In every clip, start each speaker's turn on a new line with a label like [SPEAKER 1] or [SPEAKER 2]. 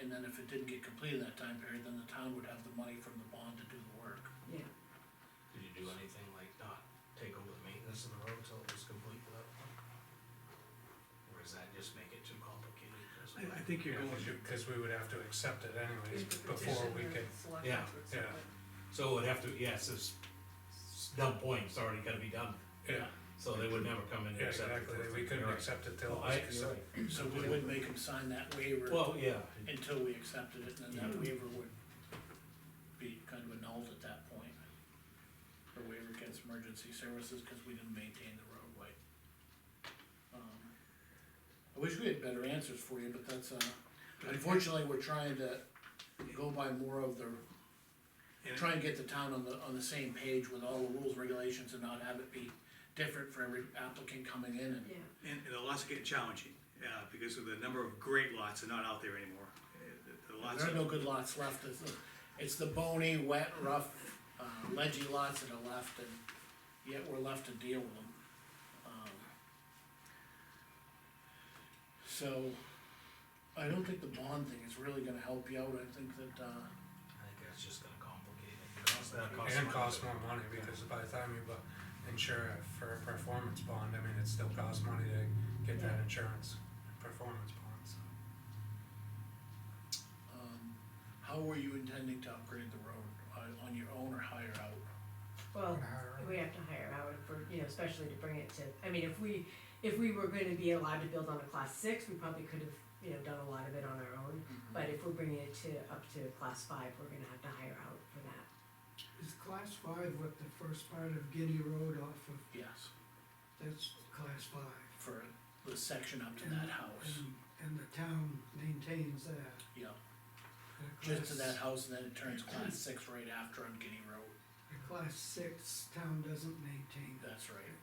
[SPEAKER 1] and then if it didn't get completed in that time period, then the town would have the money from the bond to do the work.
[SPEAKER 2] yeah,
[SPEAKER 3] Did you do anything like not take over the maintenance of the road till it was complete without? Or does that just make it too complicated? 'Cause-
[SPEAKER 4] I, I think you're going to, cause we would have to accept it anyways before we could,
[SPEAKER 3] Yeah,
[SPEAKER 4] yeah,
[SPEAKER 3] So it would have to, yes, it's it's dumb point, it's already gotta be done,
[SPEAKER 4] yeah,
[SPEAKER 3] so they would never come in and
[SPEAKER 4] yeah,
[SPEAKER 3] accept it.
[SPEAKER 4] exactly,
[SPEAKER 3] first.
[SPEAKER 4] we couldn't
[SPEAKER 3] You're right.
[SPEAKER 4] accept it till.
[SPEAKER 3] Well, I- you're right.
[SPEAKER 1] So we would make them sign that waiver
[SPEAKER 3] Well, yeah,
[SPEAKER 1] until we accepted it, and then that waiver would be kind of annulled at that point. The waiver against emergency services, cause we didn't maintain the roadway. Um, I wish we had better answers for you, but that's, uh, unfortunately, we're trying to go by more of the,
[SPEAKER 4] And-
[SPEAKER 1] try and get the town on the, on the same page with all the rules, regulations, and not have it be different for every applicant coming in and
[SPEAKER 2] Yeah,
[SPEAKER 5] And, and the lots are getting challenging, uh, because of the number of great lots are not out there anymore. Uh, the- The lots
[SPEAKER 1] There are
[SPEAKER 5] are,
[SPEAKER 1] no good lots left, it's, the- it's the bony, wet, rough, uh, ledgy lots that are left, and yet we're left to deal with them. Um, So, I don't think the bond thing is really gonna help you out, I think that, uh,
[SPEAKER 3] I think that's just gonna complicate it. Cost- that costs
[SPEAKER 4] And
[SPEAKER 3] money.
[SPEAKER 4] cost more money, because by the time you bu- insure it for a performance bond, I mean, it still costs money to get that insurance, performance bond, so.
[SPEAKER 1] um, how were you intending to upgrade the road, uh, on your own or hire out?
[SPEAKER 2] well,
[SPEAKER 4] Hire-
[SPEAKER 2] we have to hire Howard for, you know, especially to bring it to, I mean, if we, if we were gonna be allowed to build on a class six, we probably could have, you know, done a lot of it on our own. But if we're bringing it to, up to class five, we're gonna have to hire out for that.
[SPEAKER 6] Is class five what the first part of Guinea Road off of,
[SPEAKER 1] Yes,
[SPEAKER 6] that's class five?
[SPEAKER 1] for the section up to that house,
[SPEAKER 6] And- And the town maintains that.
[SPEAKER 1] yeah,
[SPEAKER 6] that
[SPEAKER 1] just to
[SPEAKER 6] class-
[SPEAKER 1] that house, and then it turns class six right after on Guinea Road.
[SPEAKER 6] The class six, town doesn't maintain that.
[SPEAKER 1] That's right.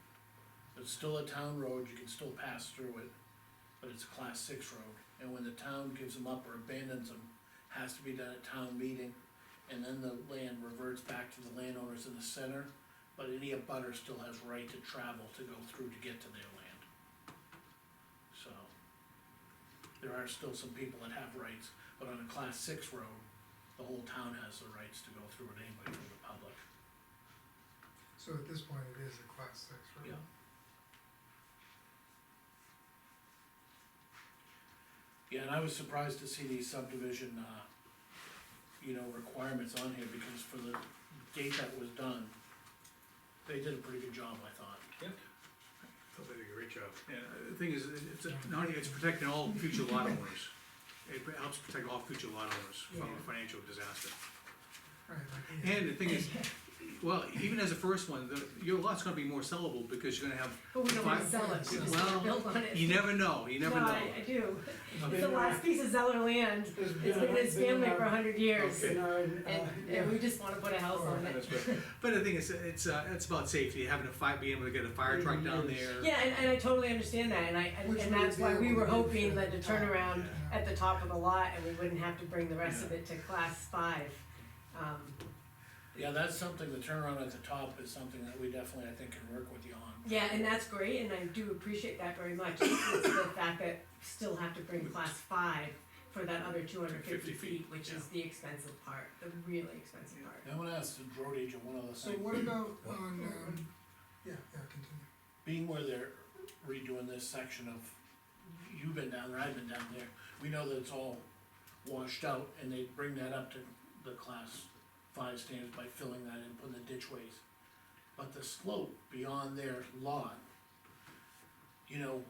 [SPEAKER 1] It's still a town road, you can still pass through it, but it's a class six road, and when the town gives them up or abandons them, has to be done at town meeting, and then the land reverts back to the landowners in the center, but any abutter still has right to travel to go through to get to their land. So, there are still some people that have rights, but on a class six road, the whole town has the rights to go through it anyway from the public.
[SPEAKER 7] So at this point, it is a class six, right?
[SPEAKER 1] Yeah. Yeah, and I was surprised to see these subdivision, uh, you know, requirements on here, because for the date that was done, they did a pretty good job, I thought.
[SPEAKER 5] they'll do a great job. And uh, the thing is, it- it's, not only, it's protecting all future lot owners. It helps protect all future lot owners from
[SPEAKER 2] Yeah.
[SPEAKER 5] financial disaster.
[SPEAKER 7] Right, like, yeah.
[SPEAKER 5] And the thing is, well, even as a first one, the, your lot's gonna be more sellable because you're gonna have,
[SPEAKER 2] But we don't wanna
[SPEAKER 5] Five-
[SPEAKER 2] sell it, we just
[SPEAKER 5] Well,
[SPEAKER 2] wanna build on it.
[SPEAKER 5] you never know, you never
[SPEAKER 2] No,
[SPEAKER 5] know.
[SPEAKER 2] I, I do. It's the last piece of Zeller land.
[SPEAKER 6] There's
[SPEAKER 2] It's been his family for a hundred years.
[SPEAKER 6] In our, uh,
[SPEAKER 2] And, and we just wanna put a house on it.
[SPEAKER 5] That's right. But the thing is, it's, uh, it's about safety, having a fire, being able to get a fire truck down there.
[SPEAKER 2] Yeah, and, and I totally understand that, and I, and-
[SPEAKER 6] Which
[SPEAKER 2] and
[SPEAKER 6] we
[SPEAKER 2] that's
[SPEAKER 6] would
[SPEAKER 2] why
[SPEAKER 6] be
[SPEAKER 2] we
[SPEAKER 6] able
[SPEAKER 2] were
[SPEAKER 6] to do
[SPEAKER 2] hoping
[SPEAKER 6] for-
[SPEAKER 2] that the turnaround
[SPEAKER 7] Yeah.
[SPEAKER 2] at the top of the lot, and we wouldn't have to bring the rest of it to class five. Um,
[SPEAKER 1] Yeah, that's something, the turnaround at the top is something that we definitely, I think, can work with you on.
[SPEAKER 2] yeah, and that's great, and I do appreciate that very much, it's the fact that still have to bring class five for that other two hundred fifty
[SPEAKER 5] 50 feet,
[SPEAKER 2] feet, which is the expensive part, the really expensive part.
[SPEAKER 1] Now, I wanna ask the road agent one other
[SPEAKER 7] So
[SPEAKER 1] thing,
[SPEAKER 7] what about on, um, yeah, yeah, continue.
[SPEAKER 1] being where they're redoing this section of, you've been down there, I've been down there, we know that it's all washed out, and they bring that up to the class five standards by filling that in, putting the ditchways. But the slope beyond their lot, you know,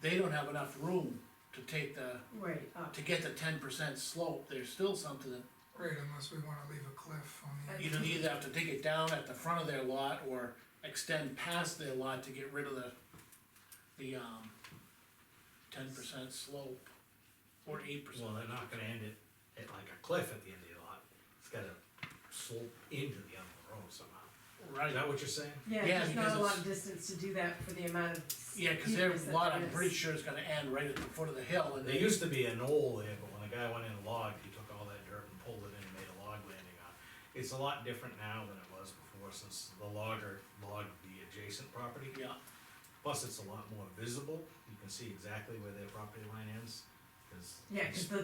[SPEAKER 1] they don't have enough room to take the,
[SPEAKER 2] Right, up,
[SPEAKER 1] to get the ten percent slope, there's still something that
[SPEAKER 7] Right, unless we wanna leave a cliff on the.
[SPEAKER 2] Uh,
[SPEAKER 7] end.
[SPEAKER 1] you don't either have to take it down at the front of their lot or extend past their lot to get rid of the, the, um, ten percent slope or eight
[SPEAKER 3] Well,
[SPEAKER 1] percent.
[SPEAKER 3] they're not gonna end it at like a cliff at the end of the lot, it's gotta slope into the end of the road somehow. Is
[SPEAKER 1] Right,
[SPEAKER 3] that what you're saying?
[SPEAKER 2] yeah,
[SPEAKER 1] Yeah,
[SPEAKER 2] there's not
[SPEAKER 1] because
[SPEAKER 2] a lot
[SPEAKER 1] it's-
[SPEAKER 2] of distance to do that for the amount of.
[SPEAKER 1] yeah, cause their
[SPEAKER 2] steepness that
[SPEAKER 1] lot,
[SPEAKER 2] there
[SPEAKER 1] I'm
[SPEAKER 2] is.
[SPEAKER 1] pretty sure is gonna end right at the foot of the hill and
[SPEAKER 3] There
[SPEAKER 1] they,
[SPEAKER 3] used to be an knoll there, but when a guy went in and logged, he took all that dirt and pulled it in and made a log landing on. it. It's a lot different now than it was before, since the logger logged the adjacent property.
[SPEAKER 1] yeah,
[SPEAKER 3] Plus, it's a lot more visible, you can see exactly where their property line ends, 'cause
[SPEAKER 2] Yeah, 'cause the